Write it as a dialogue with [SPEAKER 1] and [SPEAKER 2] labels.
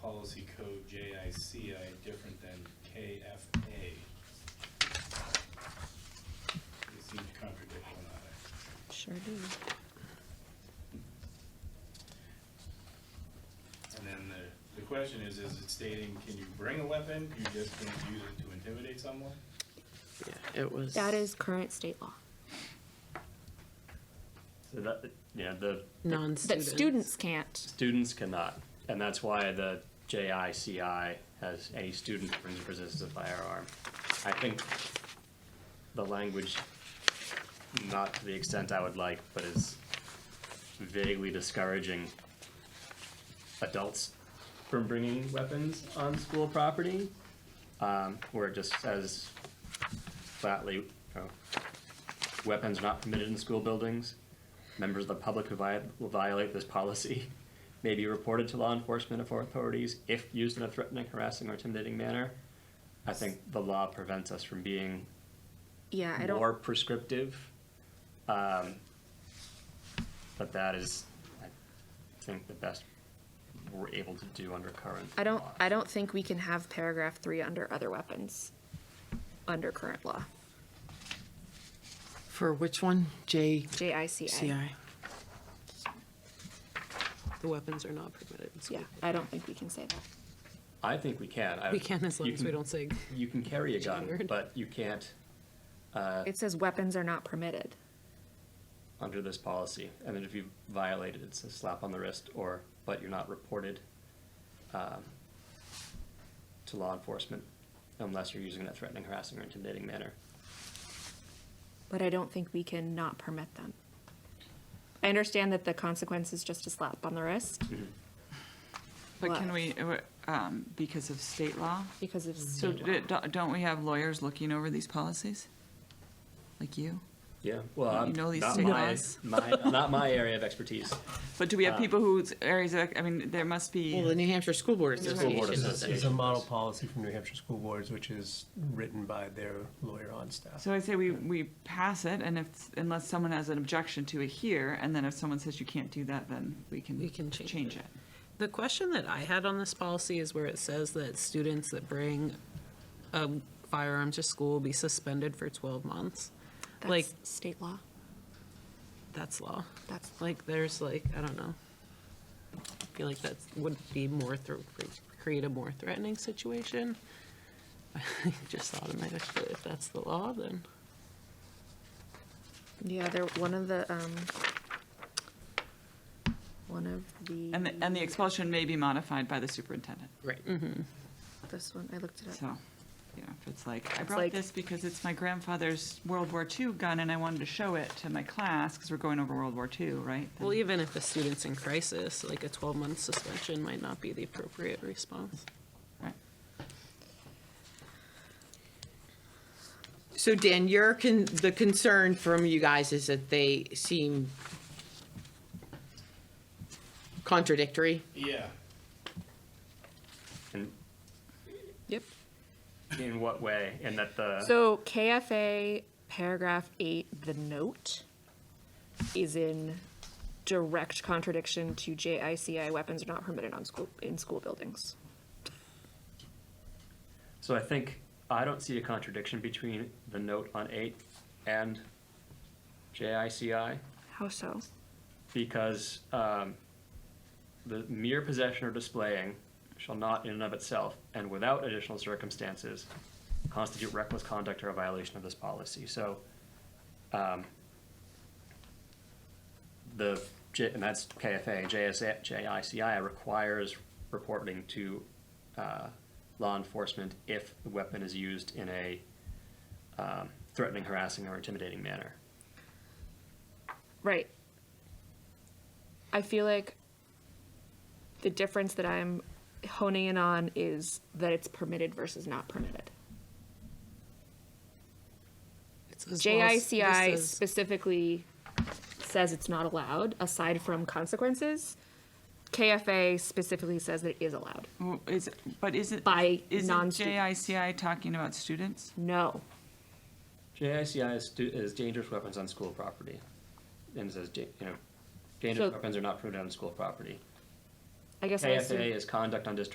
[SPEAKER 1] policy code JICI different than KFA? They seem to contradict one another.
[SPEAKER 2] Sure do.
[SPEAKER 1] And then the, the question is, is it stating, can you bring a weapon, you just can't use it to intimidate someone?
[SPEAKER 3] Yeah, it was.
[SPEAKER 2] That is current state law.
[SPEAKER 4] So that, yeah, the
[SPEAKER 3] non-student.
[SPEAKER 2] That students can't.
[SPEAKER 4] students cannot, and that's why the JICI has any student who brings or possesses a firearm. I think the language, not to the extent I would like, but is vaguely discouraging adults from bringing weapons on school property, um, where it just says flatly, you know, weapons are not permitted in school buildings. Members of the public who vi- will violate this policy may be reported to law enforcement or authorities if used in a threatening, harassing, or intimidating manner. I think the law prevents us from being
[SPEAKER 2] Yeah, I
[SPEAKER 4] more
[SPEAKER 2] don't,
[SPEAKER 4] prescriptive. Um, but that is, I think, the best we're able to do under current.
[SPEAKER 2] I don't,
[SPEAKER 4] law.
[SPEAKER 2] I don't think we can have paragraph three under other weapons, under current law,
[SPEAKER 3] For which one? J C
[SPEAKER 2] JICI.
[SPEAKER 3] I. The weapons are not permitted in
[SPEAKER 2] Yeah,
[SPEAKER 3] school.
[SPEAKER 2] I don't think we can say that.
[SPEAKER 4] I think we can. I-
[SPEAKER 3] We can as long
[SPEAKER 4] you
[SPEAKER 3] as we don't say,
[SPEAKER 4] You can carry a gun,
[SPEAKER 3] Word.
[SPEAKER 4] but you can't
[SPEAKER 2] It says weapons are not permitted.
[SPEAKER 4] under this policy. And then if you violate it, it's a slap on the wrist or, but you're not reported um, to law enforcement unless you're using that threatening, harassing, or intimidating manner.
[SPEAKER 2] But I don't think we can not permit them. I understand that the consequence is just a slap on the wrist
[SPEAKER 5] But
[SPEAKER 2] What?
[SPEAKER 5] can we, uh, um, because of state law?
[SPEAKER 2] because of
[SPEAKER 5] So
[SPEAKER 2] state law.
[SPEAKER 5] d- don't don't we have lawyers looking over these policies? Like you?
[SPEAKER 4] Yeah, well,
[SPEAKER 5] You
[SPEAKER 4] I'm-
[SPEAKER 5] know these
[SPEAKER 4] not
[SPEAKER 5] state
[SPEAKER 4] my,
[SPEAKER 5] laws.
[SPEAKER 4] my, not my area of expertise.
[SPEAKER 5] But do we have people whose areas, of- I mean, there must
[SPEAKER 3] well, the
[SPEAKER 5] be,
[SPEAKER 3] New Hampshire School Board
[SPEAKER 5] School
[SPEAKER 3] Association.
[SPEAKER 5] Board
[SPEAKER 3] does it.
[SPEAKER 4] Association.
[SPEAKER 6] It's a model policy from New Hampshire School Boards, which is written by their lawyer on staff.
[SPEAKER 5] so I say we, we pass it and if, unless someone has an objection to it here, and then if someone says you can't do that, then we can.
[SPEAKER 3] We can change
[SPEAKER 5] Change
[SPEAKER 3] it.
[SPEAKER 5] it.
[SPEAKER 3] The question that I had on this policy is where it says that students that bring a firearm to school will be suspended for 12 months. Like,
[SPEAKER 2] That's state law.
[SPEAKER 3] that's law.
[SPEAKER 2] That's,
[SPEAKER 3] Like, there's like, I don't know. I feel like that would be more, thr- create a more threatening situation. I Just automatically, if that's the law, then.
[SPEAKER 2] yeah, they're, one of the, um, one of
[SPEAKER 5] And, the-
[SPEAKER 2] the,
[SPEAKER 5] and the expulsion may be modified by the superintendent,
[SPEAKER 3] Right.
[SPEAKER 2] this one, I looked it up.
[SPEAKER 5] so, you know, if it's like, I
[SPEAKER 2] like-
[SPEAKER 5] brought this because it's my grandfather's World War II gun and I wanted to show it to my class, because we're going over World War II, right?
[SPEAKER 3] Well, even if the student's in crisis, like a 12-month suspension might not be the appropriate response.
[SPEAKER 5] Right.
[SPEAKER 7] So Dan, your con, the concern from you guys is that they seem contradictory?
[SPEAKER 1] Yeah,
[SPEAKER 4] And
[SPEAKER 3] Yep.
[SPEAKER 4] in what way? And that the,
[SPEAKER 2] So KFA paragraph eight, the note is in direct contradiction to JICI weapons are not permitted on school, in school buildings.
[SPEAKER 4] so I think, I don't see a contradiction between the note on eight and JICI.
[SPEAKER 2] How so?
[SPEAKER 4] because um, the mere possession or displaying shall not in and of itself and without additional circumstances constitute reckless conduct or a violation of this policy. So um, the, J- and that's KFA, JSA, JICI requires reporting to uh, law enforcement if the weapon is used in a um, threatening, harassing, or intimidating manner.
[SPEAKER 2] Right. I feel like the difference that I'm honing in on is that it's permitted versus not permitted.
[SPEAKER 3] It says laws- this
[SPEAKER 2] JICI
[SPEAKER 3] says-
[SPEAKER 2] specifically says it's not allowed, aside from consequences. KFA specifically says that it is allowed.
[SPEAKER 5] Well, Is, but is it?
[SPEAKER 2] By
[SPEAKER 5] Isn't
[SPEAKER 2] non-students.
[SPEAKER 5] JICI talking about students?
[SPEAKER 2] No.
[SPEAKER 4] JICI is, stu- is dangerous weapons on school property, and it says, da- you know, dangerous
[SPEAKER 2] So-
[SPEAKER 4] weapons are not permitted on school property.
[SPEAKER 2] I guess I assume.
[SPEAKER 4] KFA is conduct on district